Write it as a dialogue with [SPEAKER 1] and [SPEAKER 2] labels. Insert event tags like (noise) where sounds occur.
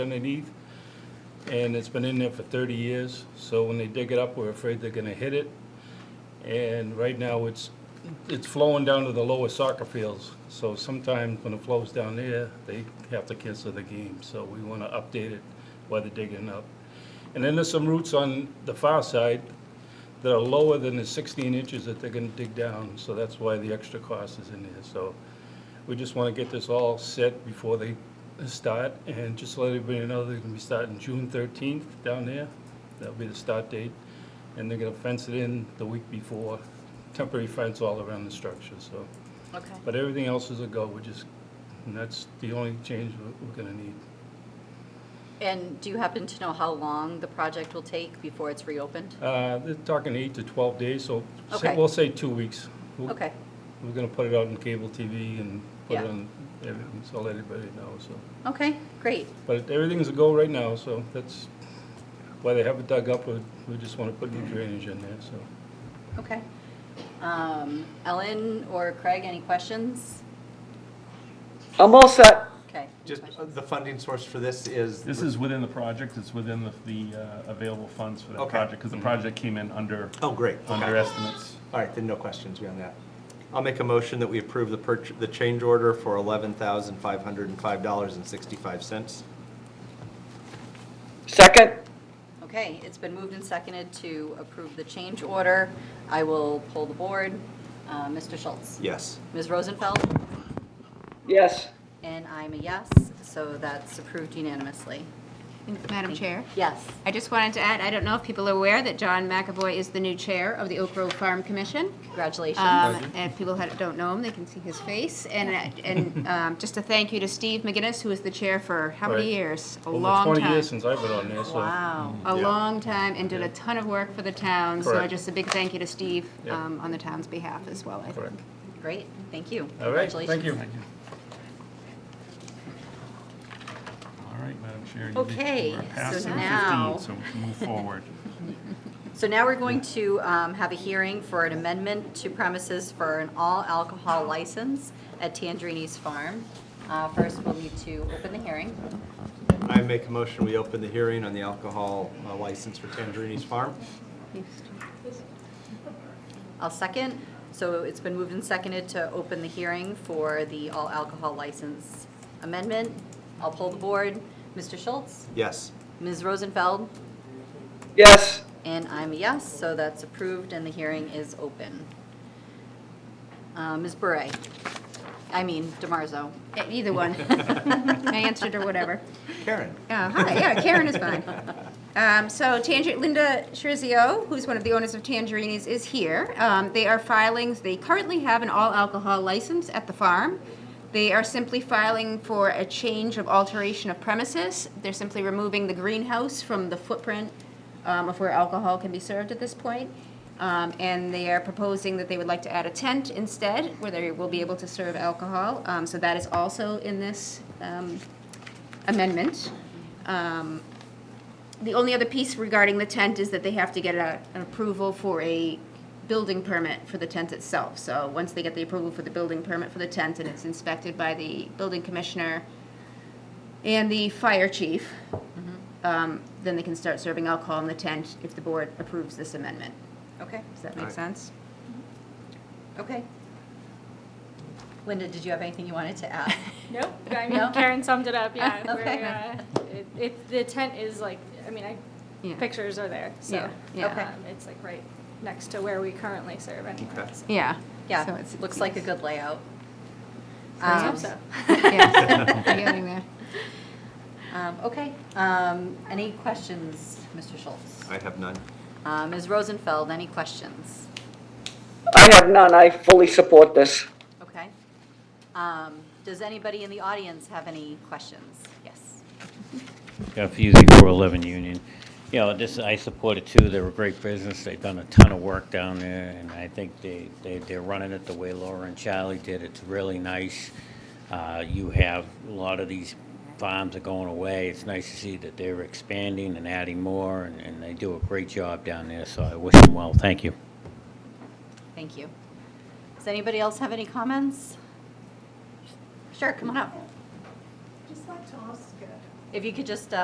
[SPEAKER 1] underneath, and it's been in there for 30 years, so when they dig it up, we're afraid they're gonna hit it. And right now, it's, it's flowing down to the lower soccer fields, so sometimes when it flows down there, they have to cancel the game, so we wanna update it while they're digging it up. And then there's some roots on the far side that are lower than the 16 inches that they're gonna dig down, so that's why the extra cost is in there, so. We just want to get this all set before they start, and just let everybody know they're gonna be starting June thirteenth down there. That'll be the start date, and they're gonna fence it in the week before, temporary fence all around the structure, so.
[SPEAKER 2] Okay,
[SPEAKER 1] But everything else is a go, we're just, and that's the only change we're- we're gonna need.
[SPEAKER 2] and do you happen to know how long the project will take before it's reopened?
[SPEAKER 1] Uh, they're talking eight to twelve days, so say-
[SPEAKER 2] Okay.
[SPEAKER 1] we'll say two weeks. We'll-
[SPEAKER 2] Okay,
[SPEAKER 1] We're gonna put it out on cable TV and put it
[SPEAKER 2] Yeah.
[SPEAKER 1] on everything, so let everybody know, so.
[SPEAKER 2] okay, great,
[SPEAKER 1] But everything's a go right now, so that's why they haven't dug up, we we just want to put new drainage in there, so.
[SPEAKER 2] okay. Um, Ellen or Craig, any questions?
[SPEAKER 3] I'm all set.
[SPEAKER 2] Okay. any
[SPEAKER 4] Just
[SPEAKER 2] questions?
[SPEAKER 4] uh, the funding source for this is.
[SPEAKER 5] This is within the project, it's within the, the uh, available funds for that
[SPEAKER 4] Okay.
[SPEAKER 5] project, because the project came in under,
[SPEAKER 4] Oh, great.
[SPEAKER 5] under
[SPEAKER 4] Okay.
[SPEAKER 5] estimates.
[SPEAKER 4] All right, then no questions beyond that. I'll make a motion that we approve the purch, the change order for eleven thousand five hundred and five dollars and sixty-five cents.
[SPEAKER 3] Second?
[SPEAKER 2] Okay, it's been moved and seconded to approve the change order. I will pull the board. Uh, Mr. Schultz?
[SPEAKER 4] Yes.
[SPEAKER 2] Ms. Rosenfeld?
[SPEAKER 3] Yes.
[SPEAKER 2] And I'm a yes, so that's approved unanimously.
[SPEAKER 6] Madam Chair,
[SPEAKER 2] Yes.
[SPEAKER 6] I just wanted to add, I don't know if people are aware that John McAvoy is the new chair of the Oak Grove Farm Commission. Um,
[SPEAKER 2] Congratulations.
[SPEAKER 6] And if people had- don't know him, they can see his face. And, uh, and um, just a thank you to Steve McGinnis, who was the chair for how many
[SPEAKER 1] Right.
[SPEAKER 6] years? A
[SPEAKER 1] Over
[SPEAKER 6] long
[SPEAKER 1] 20 years
[SPEAKER 6] time.
[SPEAKER 1] since I've been on there, so.
[SPEAKER 2] Wow.
[SPEAKER 6] A long time and did a ton of work for the town. So
[SPEAKER 1] Correct.
[SPEAKER 6] just a big thank you to Steve
[SPEAKER 1] Yeah.
[SPEAKER 6] um, on the town's behalf as well, I
[SPEAKER 1] Correct.
[SPEAKER 6] think.
[SPEAKER 2] Great, thank you.
[SPEAKER 1] All right, thank
[SPEAKER 2] Congratulations.
[SPEAKER 1] you.
[SPEAKER 5] All right, Madam Chair. you-
[SPEAKER 2] Okay,
[SPEAKER 5] we're past
[SPEAKER 2] so
[SPEAKER 5] 7:15,
[SPEAKER 2] now-
[SPEAKER 5] So we can move forward.
[SPEAKER 2] So now we're going to um, have a hearing for an amendment to premises for an all-alcohol license at Tangerini's Farm. Uh, First, we'll need to open the hearing.
[SPEAKER 4] I make a motion, we open the hearing on the alcohol uh, license for Tangerini's Farm.
[SPEAKER 2] I'll second. So it's been moved and seconded to open the hearing for the all-alcohol license amendment. I'll poll the board. Mr. Schultz?
[SPEAKER 4] Yes.
[SPEAKER 2] Ms. Rosenfeld?
[SPEAKER 3] Yes.
[SPEAKER 2] And I'm a yes, so that's approved and the hearing is open. Uh, Ms. Bure? I mean, Demarzo.
[SPEAKER 6] Uh,
[SPEAKER 1] (laughs)
[SPEAKER 6] Either one. I answered or whatever.
[SPEAKER 4] Karen?
[SPEAKER 6] Oh, hi, yeah, Karen is fine. Um, so Tanger, Linda Shirizio, who's one of the owners of Tangerini's, is here. Um, they are filings, they currently have an all-alcohol license at the farm. They are simply filing for a change of alteration of premises. They're simply removing the greenhouse from the footprint um, of where alcohol can be served at this point. Um, and they are proposing that they would like to add a tent instead, where they will be able to serve alcohol. Um, so that is also in this, um, amendment. Um, The only other piece regarding the tent is that they have to get a- an approval for a building permit for the tent itself. So once they get the approval for the building permit for the tent and it's inspected by the building commissioner and the fire chief,
[SPEAKER 2] Mm-hmm.
[SPEAKER 6] um, then they can start serving alcohol in the tent if the board approves this amendment.
[SPEAKER 2] Okay,
[SPEAKER 6] Does that
[SPEAKER 4] All
[SPEAKER 6] make
[SPEAKER 4] right.
[SPEAKER 6] sense?
[SPEAKER 2] okay. Linda, did you have anything you wanted to
[SPEAKER 7] (laughs)
[SPEAKER 2] add?
[SPEAKER 7] Nope. I
[SPEAKER 2] No?
[SPEAKER 7] mean, Karen summed it up. Yeah. we're,
[SPEAKER 2] Okay.
[SPEAKER 7] uh, it, it, the tent is like, I mean, I,
[SPEAKER 6] Yeah.
[SPEAKER 7] pictures are there. So
[SPEAKER 6] Yeah, yeah.
[SPEAKER 2] Okay.
[SPEAKER 7] um, it's like right next to where we currently serve. Anyway,
[SPEAKER 4] Okay.
[SPEAKER 7] so.
[SPEAKER 6] Yeah. So
[SPEAKER 2] Yeah,
[SPEAKER 6] it's-
[SPEAKER 2] looks like
[SPEAKER 6] (laughs)
[SPEAKER 2] a good layout.
[SPEAKER 7] I
[SPEAKER 2] Um,
[SPEAKER 7] hope so.
[SPEAKER 2] (laughs)
[SPEAKER 6] Yes, we're getting there.
[SPEAKER 2] um, Okay, um, any questions, Mr. Schultz?
[SPEAKER 4] I have none.
[SPEAKER 2] Uh, Ms. Rosenfeld, any questions?
[SPEAKER 3] I have none. I fully support this.
[SPEAKER 2] Okay. Um, Does anybody in the audience have any questions? Yes.
[SPEAKER 8] Yeah, Fusey, 411 Union. You know, this, I support it too. They're a great business. They've done a ton of work down there, and I think they, they, they're running it the way Laura and Charlie did. It's really nice. Uh, you have, a lot of these farms are going away. It's nice to see that they're expanding and adding more, and, and they do a great job down there, so I wish them well. Thank you.
[SPEAKER 2] Thank you. Does anybody else have any comments? Sure, come on up.
[SPEAKER 9] Just like to ask, uh,
[SPEAKER 6] If you could just, uh,